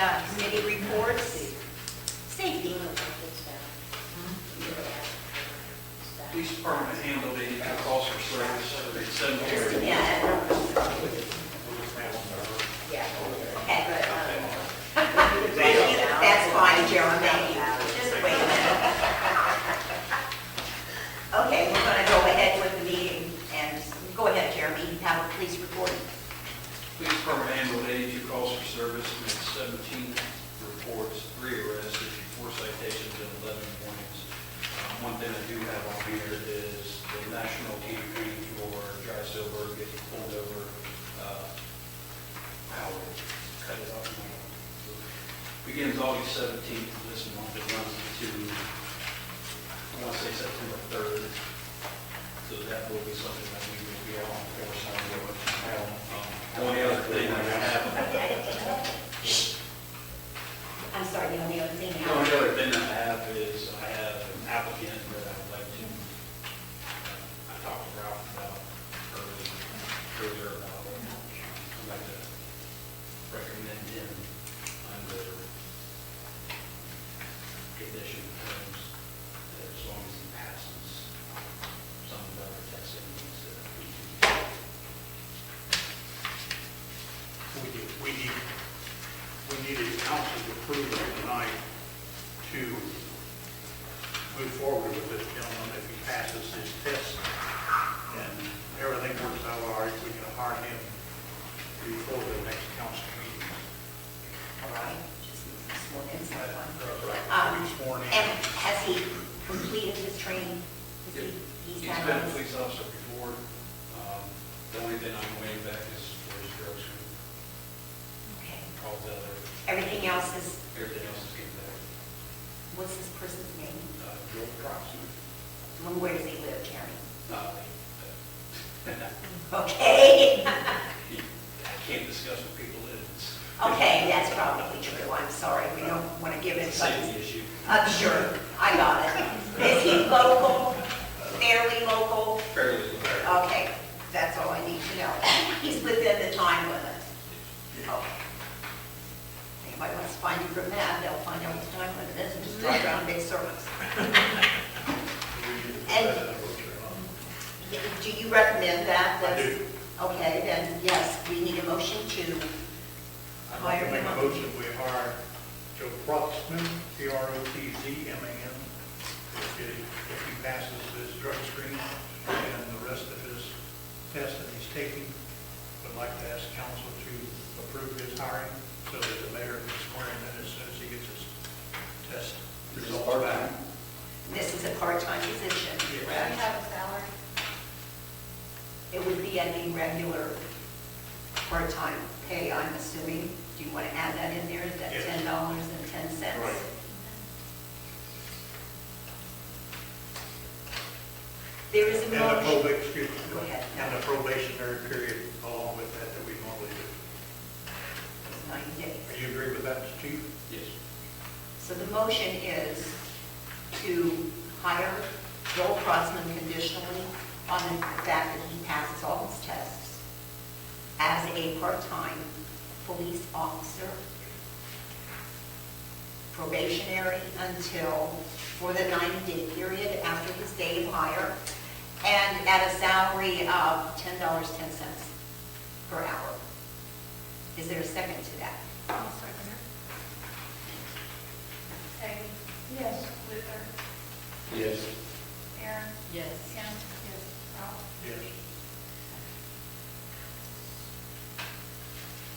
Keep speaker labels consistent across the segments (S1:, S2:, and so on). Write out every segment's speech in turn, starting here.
S1: uh, committee reports. Safety.
S2: Police department handled the calls for service at seven
S1: Just a
S2: thirty.
S1: minute. Yeah. Okay, good. Thank you. That's fine, Jeremy, thank you. Just wait a minute. Okay, we're going to go ahead with the meeting, and go ahead, Jeremy, have a police report.
S2: Police department handled eighty-two calls for service, made seventeen reports, three arrests, issued four citations, and eleven warnings. Um, One thing I do have on here is the national TV for dry silver getting pulled over. uh, Howard, cut it off. Begins August seventeenth, this month, it runs to, I want to say September third. So that will be something that we will be on for some of the Only other thing that I have,
S1: I'm sorry, the only other thing.
S2: the only other thing that I have is I have an applicant that I would like to, uh, I talked to Ralph about earlier, earlier about, I'd like to recommend him under condition terms, that as long as he passes some of the other testing needs that we do.
S3: We do, we need, we needed council's approval tonight to move forward with this gentleman if he passes his test. And everything works out all right, we can hire him before the next council meeting.
S1: All right, just need to sworn in someone.
S3: Uh, Be sworn in.
S1: And has he completed his training? Has he-
S2: He's
S1: done
S2: been a
S1: his-
S2: police officer before. Um, The only thing I'm waiting back is for his drugs.
S1: Okay.
S2: All the other,
S1: Everything else is,
S2: everything else is getting better.
S1: what's this person's name?
S2: Uh, Joe Croxton,
S1: And Where does he live, Jeremy?
S2: not me.
S1: Okay,
S2: I can't discuss with people that it's
S1: okay, that's probably true, I'm sorry, we don't want to give
S2: a
S1: it, but,
S2: safety issue.
S1: I'm sure, I got it. Is he local, fairly local?
S2: Fairly, fair.
S1: Okay, that's all I need to know. He's within the time limit. Okay. Anybody wants to find you from that, they'll find out what the time limit is and just drive around big circles.
S3: We need to put
S1: And-
S3: that in the book, um,
S1: Y- Do you recommend that?
S3: I
S1: That's-
S3: do.
S1: Okay, then, yes, we need a motion to
S3: I'd like
S1: Hire
S3: to make
S1: him.
S3: a motion, we hire Joe Protzman, P-R-O-T-Z-M-A-N, if he, if he passes his drug screen and the rest of his tests that he's taking. Would like to ask council to approve his hiring, so that the mayor can swear him in as soon as he gets his test results back.
S1: This is a part-time position,
S3: Yes.
S4: Do you
S1: correct?
S4: have a salary?
S1: It would be at the regular part-time pay, I'm assuming. Do you want to add that in there, that
S3: Yes.
S1: ten dollars and ten cents?
S3: Right.
S1: There is a
S3: And the
S1: motion.
S3: probation, excuse me,
S1: Go ahead.
S3: and the probationary period along with that that we normally do.
S1: Ninety days.
S3: Do you agree with that, chief?
S2: Yes.
S1: So the motion is to hire Joel Crossman conditionally on the fact that he passes all his tests as a part-time police officer, probationary until, for the 90-day period after his day of hire, and at a salary of $10.10 per hour. Is there a second to that?
S4: I'll second it. Peggy? Yes. Luther?
S2: Yes.
S4: Aaron?
S1: Yes.
S4: Kim? Yes. Ralph?
S3: Yes.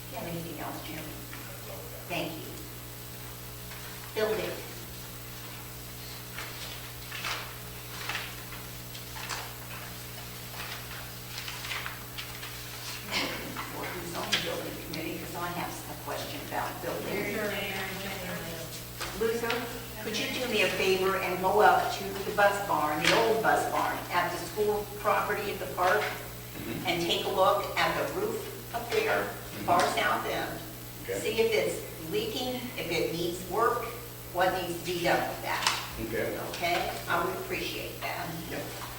S1: Do you have anything else, Jeremy? Thank you. Building. Well, who's on the building committee, because I have a question about building. Luther, could you do me a favor and go up to the bus barn, the old bus barn, at the school property at the park, and take a look at the roof up there, far south end? See if it's leaking, if it needs work, what needs to be done with that,
S5: Okay.
S1: okay? I would appreciate that.
S5: Yep.